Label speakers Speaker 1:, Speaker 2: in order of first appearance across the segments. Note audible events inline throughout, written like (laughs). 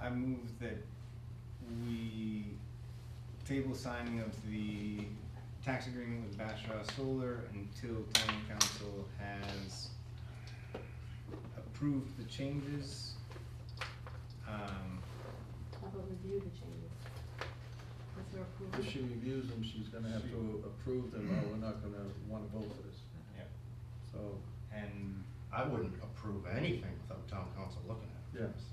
Speaker 1: I move that we table signing of the tax agreement with Bashaw Solar until town council has approved the changes. Um,
Speaker 2: How about review the changes? With your approval?
Speaker 3: If she reviews them, she's gonna have to approve them, or we're not gonna wanna vote for this.
Speaker 1: yeah,
Speaker 3: So,
Speaker 1: and,
Speaker 4: I wouldn't approve anything without town council looking at it.
Speaker 3: Yes.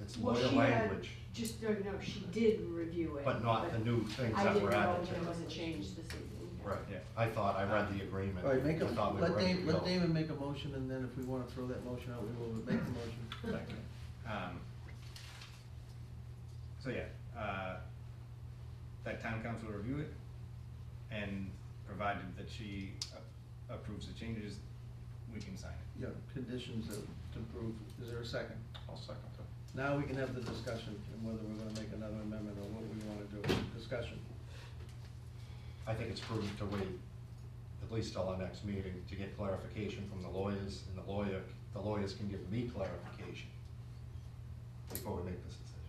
Speaker 4: It's
Speaker 2: Well,
Speaker 4: lawyer
Speaker 2: she had-
Speaker 4: language,
Speaker 2: Just, no, no, she did review it.
Speaker 4: but not the new things
Speaker 2: I
Speaker 4: that
Speaker 2: didn't
Speaker 4: were
Speaker 2: know
Speaker 4: added to
Speaker 2: there was a
Speaker 4: it.
Speaker 2: change this evening.
Speaker 4: Right,
Speaker 1: Yeah.
Speaker 4: I thought, I read the agreement.
Speaker 3: all right, make a,
Speaker 4: I thought we were
Speaker 3: let
Speaker 4: ready
Speaker 3: David,
Speaker 4: to
Speaker 3: let
Speaker 4: go.
Speaker 3: David make a motion, and then if we wanna throw that motion out, we will make the motion.
Speaker 1: um, so yeah, uh, that town council review it, and provided that she a- approves the changes, we can sign it.
Speaker 3: Yeah, conditions that to approve. Is there a second?
Speaker 4: I'll second that.
Speaker 3: Now we can have the discussion and whether we're gonna make another amendment or what we wanna do. Discussion.
Speaker 4: I think it's prudent to wait at least till our next meeting to get clarification from the lawyers, and the lawyer, the lawyers can give me clarification before we make this decision.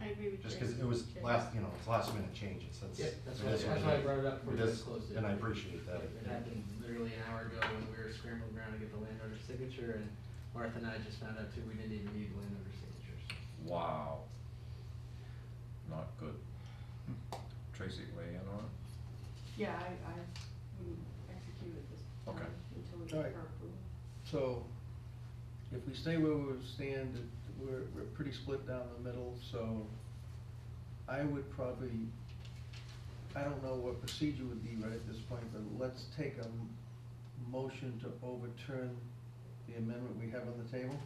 Speaker 2: I agree with you.
Speaker 4: Just because it was last, you know, it's last minute changes, that's.
Speaker 5: Yeah, that's
Speaker 4: it
Speaker 5: why,
Speaker 4: is what
Speaker 5: that's why I
Speaker 4: is.
Speaker 5: brought it up before you
Speaker 4: is,
Speaker 5: guys closed it.
Speaker 4: And I appreciate that.
Speaker 5: It happened literally an hour ago when we were scrambling around to get the landowner's signature, and Martha and I just found out too, we didn't even need landowner's signatures.
Speaker 6: Wow. Not good. Tracy, weigh in on it?
Speaker 2: Yeah, I, I wouldn't execute at this point
Speaker 6: Okay.
Speaker 2: until we
Speaker 3: All
Speaker 2: get
Speaker 3: right.
Speaker 2: her approval.
Speaker 3: So if we stay where we stand, it- we're, we're pretty split down the middle, so I would probably, I don't know what procedure would be right at this point, but let's take a m- motion to overturn the amendment we have on the table.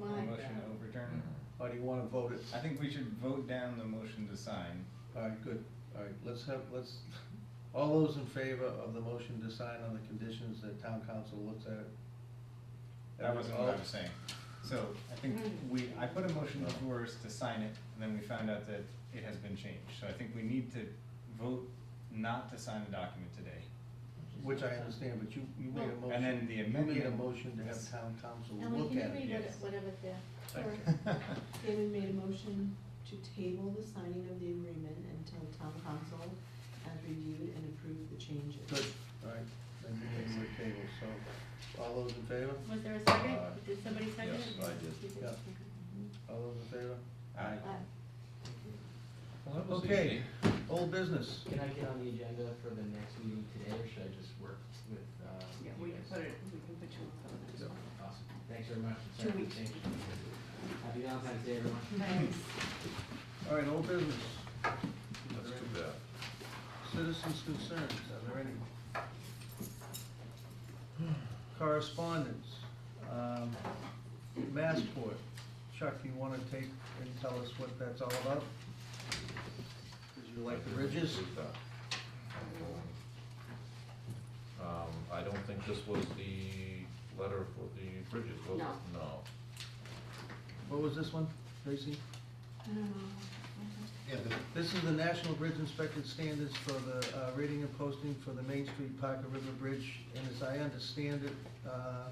Speaker 2: Like
Speaker 1: Motion
Speaker 2: that.
Speaker 1: to overturn.
Speaker 3: Or do you wanna vote it?
Speaker 1: I think we should vote down the motion to sign.
Speaker 3: All right, good. All right, let's have, let's, (laughs) all those in favor of the motion to sign on the conditions that town council looks at it?
Speaker 1: That wasn't what I was
Speaker 3: All-
Speaker 1: saying. So I think
Speaker 2: Mm.
Speaker 1: we, I put a motion before us to sign it, and then we found out that it has been changed. So I think we need to vote not to sign the document today.
Speaker 3: Which I understand, but you, you made a
Speaker 2: And
Speaker 3: motion.
Speaker 1: then the
Speaker 3: You made a
Speaker 1: amendment-
Speaker 3: motion to have town council
Speaker 7: Ellen,
Speaker 3: look
Speaker 7: can
Speaker 3: at
Speaker 7: you read
Speaker 3: it.
Speaker 7: what it-
Speaker 1: yes.
Speaker 7: whatever the,
Speaker 3: Thank
Speaker 7: or-
Speaker 1: (laughs)
Speaker 2: David made a motion to table the signing of the agreement until town council has reviewed and approved the changes.
Speaker 3: Good, all right, then you made your table, so, all those in favor?
Speaker 7: was there a second?
Speaker 6: Uh,
Speaker 7: Did somebody second
Speaker 6: yes,
Speaker 7: it?
Speaker 6: I did.
Speaker 7: You did,
Speaker 3: Yeah.
Speaker 7: okay.
Speaker 3: All those in favor?
Speaker 1: Aye.
Speaker 2: Uh,
Speaker 6: Well, that was
Speaker 3: Okay,
Speaker 6: easy.
Speaker 3: old business.
Speaker 5: Can I get on the agenda for the next meeting today, or should I just work with, uh?
Speaker 2: Yeah,
Speaker 5: you
Speaker 2: we can
Speaker 5: guys?
Speaker 2: put it, we can put you on the next one.
Speaker 5: Awesome, thanks very much.
Speaker 2: Two
Speaker 5: Sorry for the
Speaker 2: weeks.
Speaker 5: change. Happy Valentine's Day, everyone.
Speaker 3: All right, old business,
Speaker 6: That's too bad.
Speaker 3: citizens' concerns, are there any? Correspondence, um, Massport, Chuck, you wanna take and tell us what that's all about? Did you like the bridges?
Speaker 6: Do that. Um, I don't think this was the letter for the bridges, was it?
Speaker 2: No.
Speaker 6: No.
Speaker 3: What was this one, Tracy?
Speaker 2: I don't know.
Speaker 4: Yeah, the-
Speaker 3: This is the National Bridge Inspected Standards for the uh, rating and posting for the Main Street Parker River Bridge. And as I understand it, uh,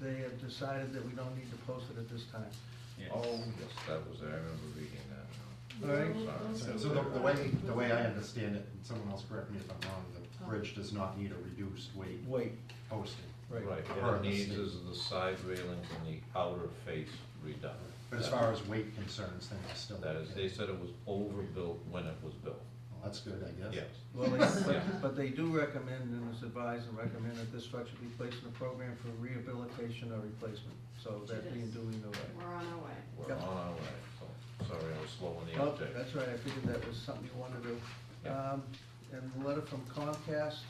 Speaker 3: they have decided that we don't need to post it at this time.
Speaker 1: Yes.
Speaker 6: Oh, yes, that was, I remember reading that.
Speaker 3: All right?
Speaker 4: So so the, the way, the way I understand it, and someone else correct me if I'm wrong, the bridge does not need a reduced weight
Speaker 3: Wait,
Speaker 4: posting.
Speaker 6: Right,
Speaker 4: Or
Speaker 6: what it
Speaker 4: the
Speaker 6: needs
Speaker 4: state.
Speaker 6: is the side railings and the outer face redone.
Speaker 4: But as
Speaker 6: That-
Speaker 4: far as weight concerns, things are still.
Speaker 6: That is, they said it was overbuilt when it was built,
Speaker 4: Well, That's good, I guess.
Speaker 6: yes.
Speaker 3: Well, they- but,
Speaker 6: Yeah.
Speaker 3: but they do recommend, and it's advised and recommend that this structure be placed in a program for rehabilitation or replacement. So that being doing the right.
Speaker 2: We're on our way.
Speaker 6: We're
Speaker 3: Yeah.
Speaker 6: on our way, so, sorry, I was slow on the
Speaker 3: Oh,
Speaker 6: update.
Speaker 3: that's right, I figured that was something you wanted to do.
Speaker 6: Yeah.
Speaker 3: Um, and the letter from Comcast,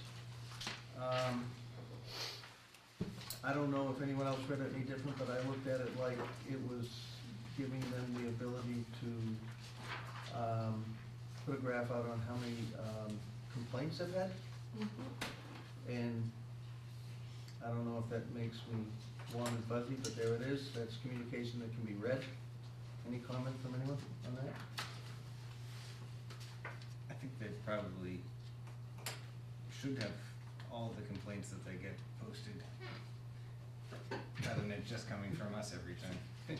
Speaker 3: um, I don't know if anyone else read it any different, but I looked at it like it was giving them the ability to, um, put a graph out on how many, um, complaints they've had. And I don't know if that makes me warm and fuzzy, but there it is, that's communication that can be read. Any comment from anyone on that?
Speaker 1: I think they probably should have all the complaints that they get posted, rather than it just coming from us every time.